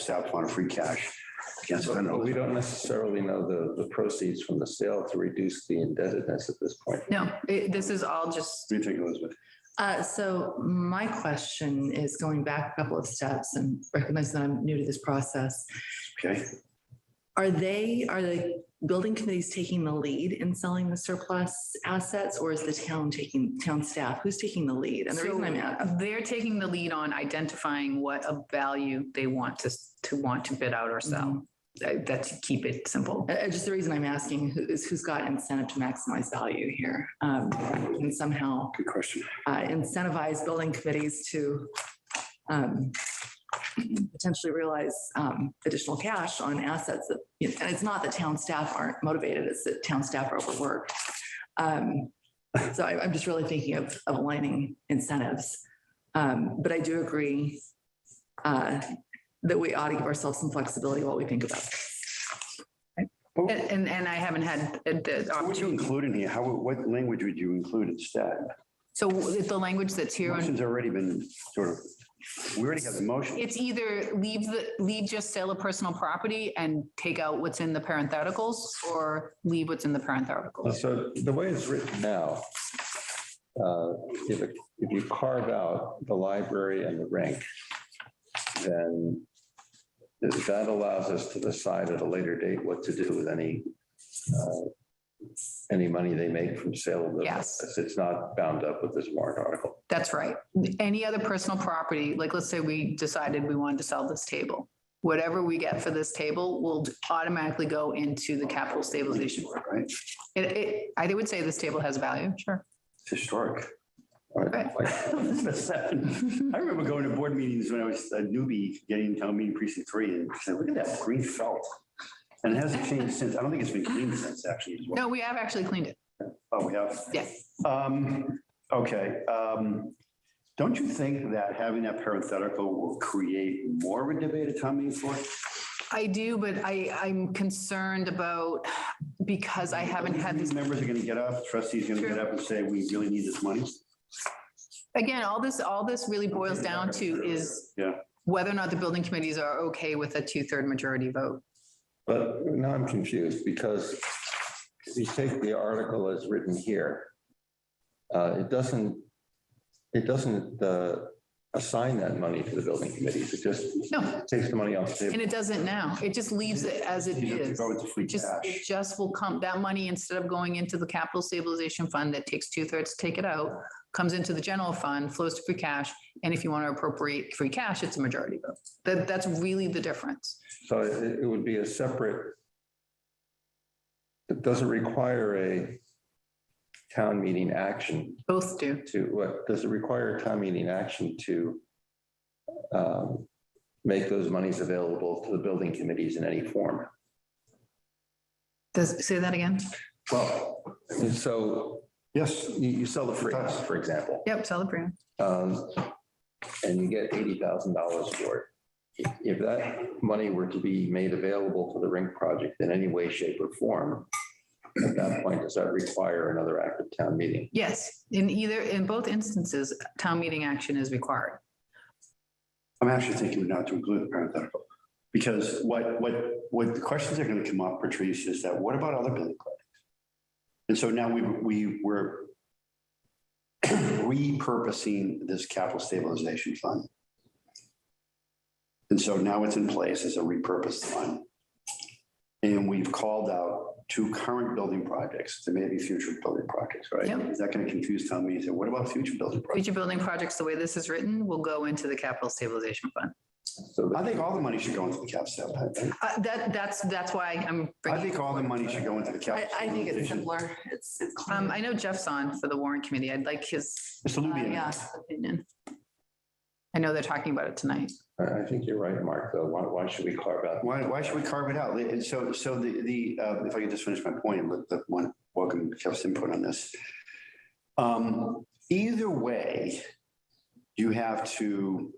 step on free cash. Can't spend But we it. don't necessarily know the, the proceeds from the sale to reduce the indebtedness at this point. No, it- this is all just What do you think, Elizabeth? Uh, so my question is going back a couple of steps and recognize that I'm new to this process. Okay, Are they, are the building committees taking the lead in selling the surplus assets or is the town taking, town staff? Who's taking the lead? And the reason I'm at, So They're taking the lead on identifying what a value they want to, to want to bid out or sell. That- That to keep it simple. Mm-hmm. uh, just the reason I'm asking who- is who's got incentive to maximize value here? Um, and somehow good question. uh, incentivize building committees to um, potentially realize um, additional cash on assets that, you know, and it's not that town staff aren't motivated, it's that town staff are overworked. Um, So I- I'm just really thinking of of aligning incentives. Um, But I do agree uh, that we ought to give ourselves some flexibility while we think about this. And, and- and I haven't had the- the What would you opportunity. include in here? How, what language would you include instead? So with the language that's here, on- Motion's already been sort of, we already got the motion. it's either leave the, leave just sale of personal property and take out what's in the parentheticals or leave what's in the parentheticals. So the way it's written now, uh, if, it- if you carve out the library and the rink, then that allows us to decide at a later date what to do with any, uh, any money they make from sale of those. Yes. assets. It's not bound up with this warrant article. That's right. Any other personal property, like let's say we decided we wanted to sell this table. Whatever we get for this table will automatically go into the capital stabilization. Right. It, it, I would say this table has value, sure. It's historic. All right, like- I remember going to board meetings when I was a newbie getting town meeting precinct three and said, look at that green felt. And it hasn't changed since. I don't think it's been cleaned since actually. as well. No, we have actually cleaned it. Oh, we have? Yeah. Um, okay, um, don't you think that having that parenthetical will create more of a debate at town meeting floor? I do, but I, I'm concerned about, because I haven't had this, These Members are gonna get up, trustees are gonna get up and say, we really need this money. again, all this, all this really boils down to is Yeah. whether or not the building committees are okay with a two-third majority vote. But now I'm confused because if you take the article as written here, uh, it doesn't, it doesn't uh, assign that money to the building committees. It just No, takes the money off the table. and it doesn't now. It just leaves it as it You have to is. Go into free It just, cash. it just will come, that money, instead of going into the capital stabilization fund that takes two-thirds to take it out, comes into the general fund, flows to free cash, and if you want to appropriate free cash, it's a majority vote. That, that's really the difference. So it it would be a separate, it doesn't require a town meeting action Both do. to, what, does it require a town meeting action to um, make those monies available to the building committees in any form? Does, say that again? Well, and so Yes, you, you sell the free house, for example, Yep, sell the brand. um, and you get eighty thousand dollars for it. If- If that money were to be made available to the rink project in any way, shape or form, at that point, does that require another active town meeting? Yes, in either, in both instances, town meeting action is required. I'm actually thinking not to include the parenthetical. Because what, what, what the questions are gonna come up, Patrice, is that what about other building projects? And so now we, we were repurposing this capital stabilization fund. And so now it's in place as a repurposed fund. And we've called out two current building projects, there may be future building projects, right? Yep. Is that gonna confuse town meeting? Say, What about future building projects? Future building projects, the way this is written, will go into the capital stabilization fund. So I that- think all the money should go into the cap step. I think. Uh, that, that's, that's why I'm I bringing think all the money should go into the I, capital. I think it's stabilization. simpler. It's, it's. cleaner. Um, I know Jeff's on for the warrant committee. I'd like his. Mr. uh, yeah, Lubian, opinion. I know they're talking about it tonight. I I think you're right, Mark, though. Why, why should we carve out? why, why should we carve it out? And so, so the, the, uh, if I could just finish my point, and let the one, welcome Jeff's input on this. Um, either way, you have to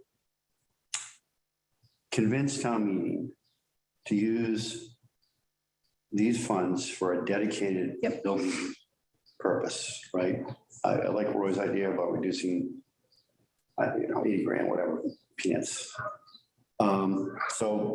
convince town meeting to use these funds for a dedicated Yep. building purpose, right? I, I like Roy's idea about reducing, I, you know, eighty grand, whatever, peanuts. Um, so